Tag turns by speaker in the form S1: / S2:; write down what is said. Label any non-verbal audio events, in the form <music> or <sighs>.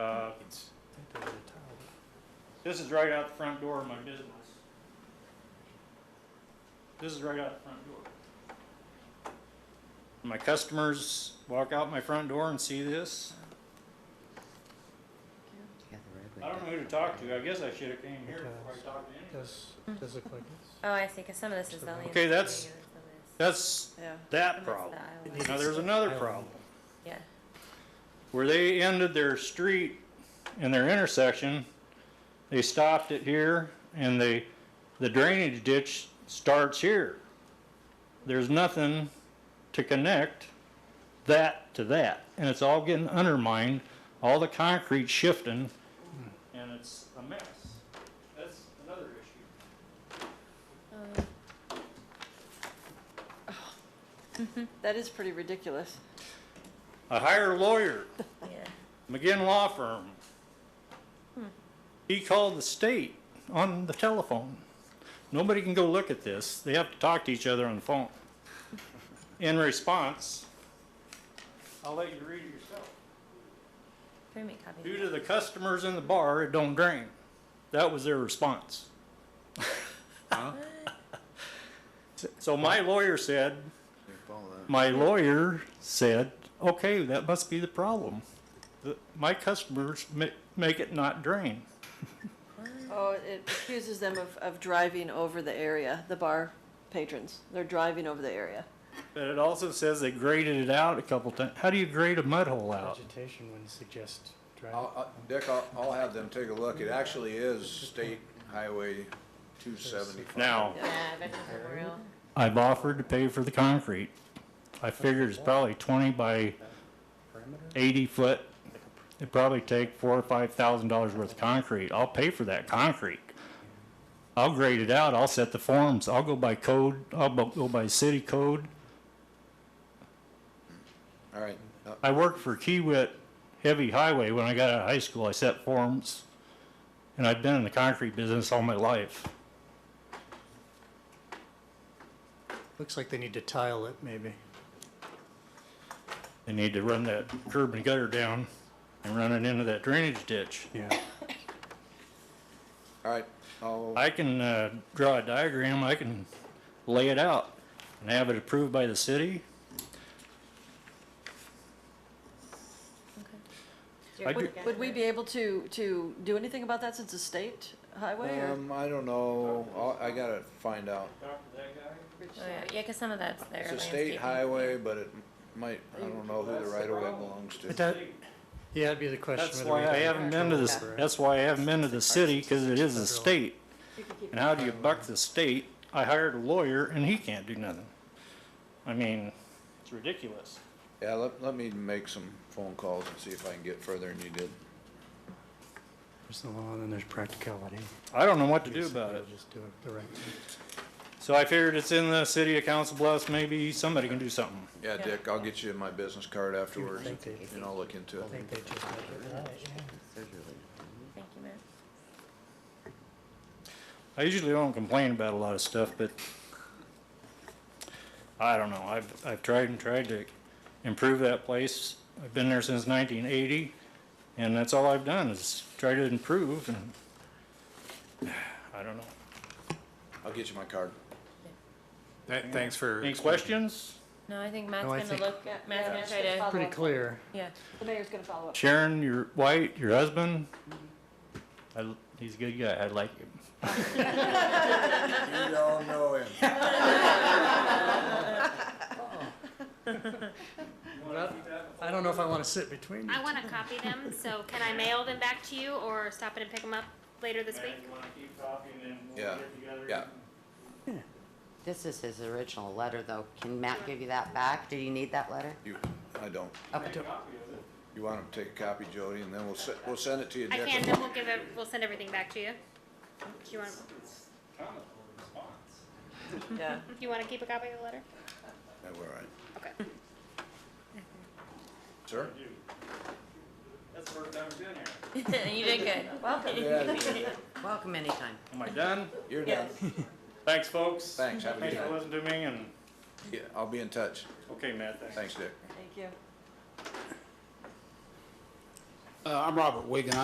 S1: Uh, This is right out the front door of my business. This is right out the front door. My customers walk out my front door and see this.
S2: Yeah, the roadway
S1: I don't
S2: does.
S1: know who to talk to. I guess I should have came here before I talked to anyone.
S3: Does, does look like this.
S4: Oh, I see, because some of this is the.
S1: Okay, that's-
S4: landscaping and some of this-
S1: That's
S4: Yeah.
S1: that
S4: some of
S1: problem.
S4: it's the
S3: It
S4: island.
S3: needs-
S1: Now, there's another problem.
S4: Yeah,
S1: Where they ended their street and their intersection, they stopped it here and they, the drainage ditch starts here. There's nothing to connect that to that. And it's all getting undermined, all the concrete shifting, and it's a mess. That's another issue.
S5: Uh,
S4: um,
S5: That is pretty ridiculous.
S1: I hire a lawyer.
S4: yeah.
S1: McGinn Law Firm. He called the state on the telephone. Nobody can go look at this. They have to talk to each other on the phone. In response, I'll let you read it yourself.
S4: Bring me a copy.
S1: Due to the customers in the bar, it don't drain. That was their response. <laughs> So my lawyer said, my lawyer said, okay, that must be the problem. The- My customers ma- make it not drain.
S5: Oh, it accuses them of, of driving over the area, the bar patrons. They're driving over the area.
S1: But it also says they graded it out a couple times. How do you grade a mud hole out?
S3: Vegetation wouldn't suggest driving.
S6: I'll, I- Dick, I'll, I'll have them take a look. It actually is State Highway two seventy-five.
S1: Now,
S4: Yeah, Veterans Memorial.
S1: I've offered to pay for the concrete. I figured it's probably twenty by
S3: Perimeter?
S1: eighty foot. It'd probably take four or five thousand dollars worth of concrete. I'll pay for that concrete. I'll grade it out. I'll set the forms. I'll go by code. I'll bu- go by city code.
S6: All right, uh,
S1: I worked for Kiewit Heavy Highway when I got out of high school. I set forms, and I've been in the concrete business all my life.
S3: Looks like they need to tile it, maybe.
S1: They need to run that curb and gutter down and run it into that drainage ditch.
S3: Yeah.
S6: all right, I'll,
S1: I can uh, draw a diagram, I can lay it out and have it approved by the city. I do-
S5: Would we be able to, to do anything about that since it's a state highway or?
S6: um, I don't know. I'll, I gotta find out.
S4: Oh, yeah, because some of that's their
S6: It's a
S4: landscaping.
S6: state highway, but it might, I don't know who the right of way belongs
S3: But
S6: to.
S3: that, yeah, that'd be the question.
S1: That's
S3: whether
S1: why
S3: we
S1: I
S3: have-
S1: haven't been to this, that's why I haven't been to the city, because it is a state. And how do you buck the state? I hired a lawyer and he can't do nothing. I mean, it's ridiculous.
S6: Yeah, let, let me make some phone calls and see if I can get further than you did.
S3: There's the law and then there's practicality.
S1: I don't know what to do about it.
S3: Just do it the right way.
S1: So I figured it's in the city of Council Bluffs, maybe somebody can do something.
S6: Yeah, Dick, I'll get you my business card afterwards
S3: think they-
S6: and I'll look into
S3: I
S6: it.
S3: think they just measured it out.
S2: Those are really-
S4: Thank you, Matt.
S1: I usually don't complain about a lot of stuff, but I don't know. I've, I've tried and tried to improve that place. I've been there since 1980, and that's all I've done is try to improve, and <sighs> I don't know.
S6: I'll get you my card.
S7: Th- Thanks for.
S1: Any questions?
S4: No, I think Matt's
S3: No, I
S4: gonna
S3: think-
S4: look, Matt's gonna try
S5: Yeah.
S4: to,
S3: Pretty clear.
S4: yeah.
S5: The mayor's gonna follow up.
S1: Sharon, your white, your husband? I, he's a good guy. I like him.
S6: You don't know him.
S3: I don't know if I want to sit between you.
S8: I want to copy them, so can I mail them back to you or stop in and pick them up later this week?
S6: Yeah, yeah.
S2: This is his original letter, though. Can Matt give you that back? Do you need that letter?
S6: You, I don't.
S2: Okay.
S6: You want to take a copy, Jody, and then we'll, se- we'll send it to you,
S8: I
S6: Dick.
S8: can, then we'll give it, we'll send everything back to you. Do you want,
S5: Yeah.
S8: <laughs> you want to keep a copy of the letter?
S6: Yeah, we're all right.
S8: Okay.
S6: Sir?
S1: That's the first time I've been here.
S4: <laughs> You did
S5: <laughs>
S4: good. Welcome.
S2: Welcome anytime.
S1: Am I done?
S6: You're done.
S1: Thanks, folks.
S6: Thanks, have a good
S1: Thanks for
S6: night.
S1: listening to me, and,
S6: Yeah, I'll be in touch.
S1: okay, Matt, thanks.
S6: Thanks, Dick.
S5: Thank you.
S7: Uh, I'm Robert Wigan.